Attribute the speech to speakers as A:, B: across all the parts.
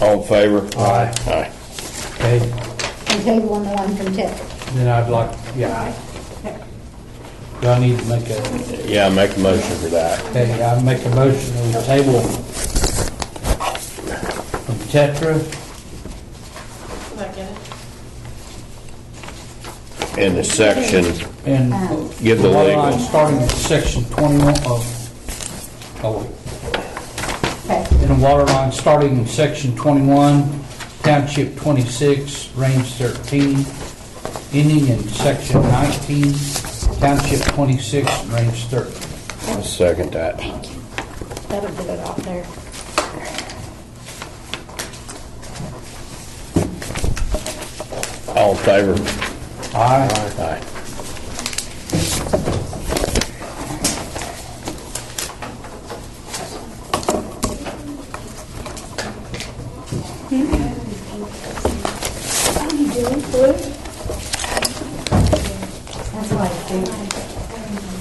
A: All in favor?
B: Aye.
A: Aye.
B: Okay,
C: And table on the one from Tiff.
B: then I'd like, yeah. Do I need to make a,
A: Yeah, make a motion for that.
B: okay, I make a motion on the table from Tetra,
D: Second.
A: In the section,
B: and.
A: Give the
B: One
A: legal.
B: line Starting at section twenty-one of, oh, wait.
C: Okay,
B: in a water line starting in section twenty-one, township twenty-six, range thirteen, ending in section nineteen, township twenty-six, range thirteen.
A: I'll second that.
C: that'll get it off there.
A: All in favor?
B: Aye.
A: Aye.
C: That's why it's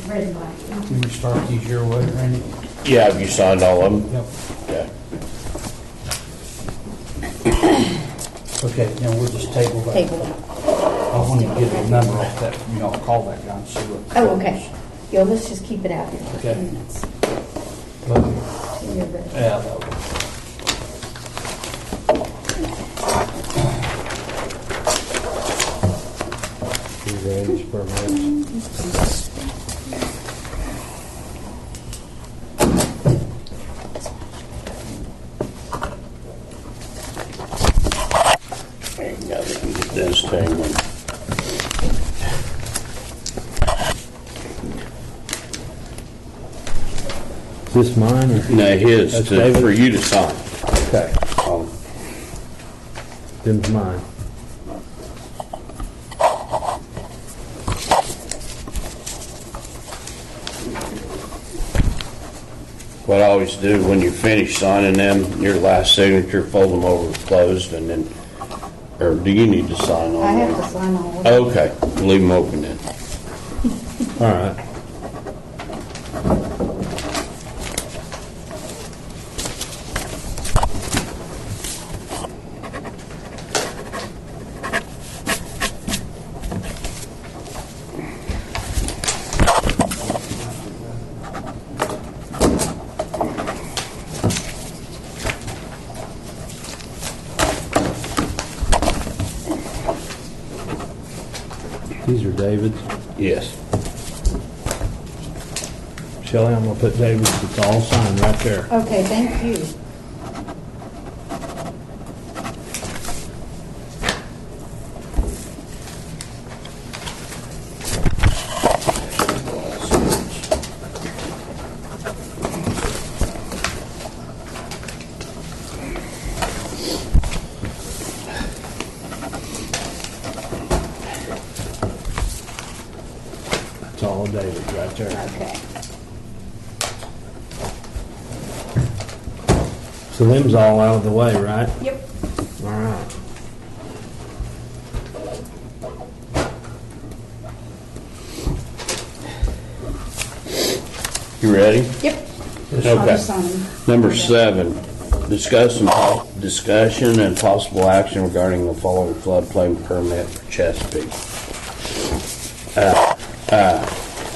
C: green. red and black.
B: Can you start these your way, Randy?
A: Yeah, have you signed all of them?
B: Yep.
A: Yeah.
B: Okay, now we'll just table that.
C: Table it.
B: I want to get a number off that, you know, call that guy and see what.
C: Oh, okay. Yo, let's just keep it out here for a
B: Okay.
C: few minutes.
B: Okay.
C: till you're ready.
B: Yeah, that would.
A: Now we can get this thing. and-
E: Is this mine or
A: No, his,
E: That's
A: to- for
E: David?
A: you to sign.
E: Okay.
A: Um,
E: them's mine?
A: What I always do, when you finish signing them, your last signature, fold them over closed and then, or do you need to sign on?
C: I have
A: them?
C: to sign all of it.
A: Okay, leave them open then.
E: All right. These are David's.
A: Yes.
E: Shelley, I'm gonna put David's, it's all signed right there.
C: Okay, thank you.
E: That's all of David's right there.
C: Okay.
E: So them's all out of the way, right?
D: Yep.
E: All right.
A: You ready?
C: Yep. I'll
A: Okay.
C: just sign them.
A: Number seven, discuss and, po- discussion and possible action regarding the following floodplain permit for Chesapeake. Uh, uh,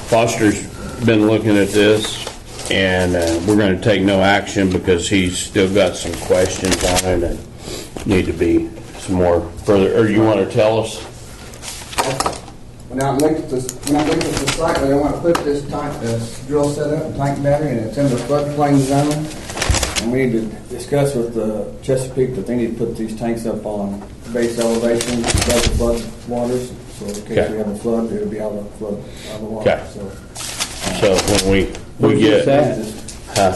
A: Foster's been looking at this, and uh, we're gonna take no action because he's still got some questions on it and need to be some more further, or you wanna tell us?
F: When I looked at this, when I looked at the site, where they want to put this tank, this drill set up, and tank battery, and it's in the floodplain zone. And we need to discuss with the Chesapeake that they need to put these tanks up on base elevation above the flood waters. So in case
A: Okay.
F: we have a flood, it'll be out of the flood, out of the
A: Okay.
F: water, so.
A: So when we, we
E: Where's this
A: get,
E: at?
F: It's,
A: huh?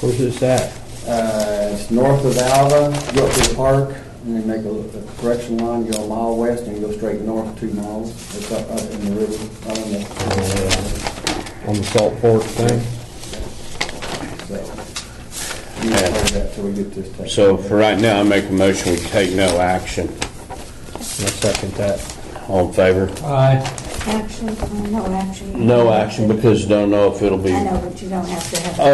E: Where's this at?
F: Uh, it's north of Alva, go up to the park, and then make a a correction line, go a mile west, and go straight north two miles. It's up, up in the river, up in the,
E: On the salt fork thing?
F: So, we need to hold that till we get this taken.
A: So for right now, I make a motion, we take no action.
E: I second that.
A: All in favor?
B: Aye.
C: Actually, no, actually.
A: No action because don't know if it'll be.
C: I know, but you don't have to have.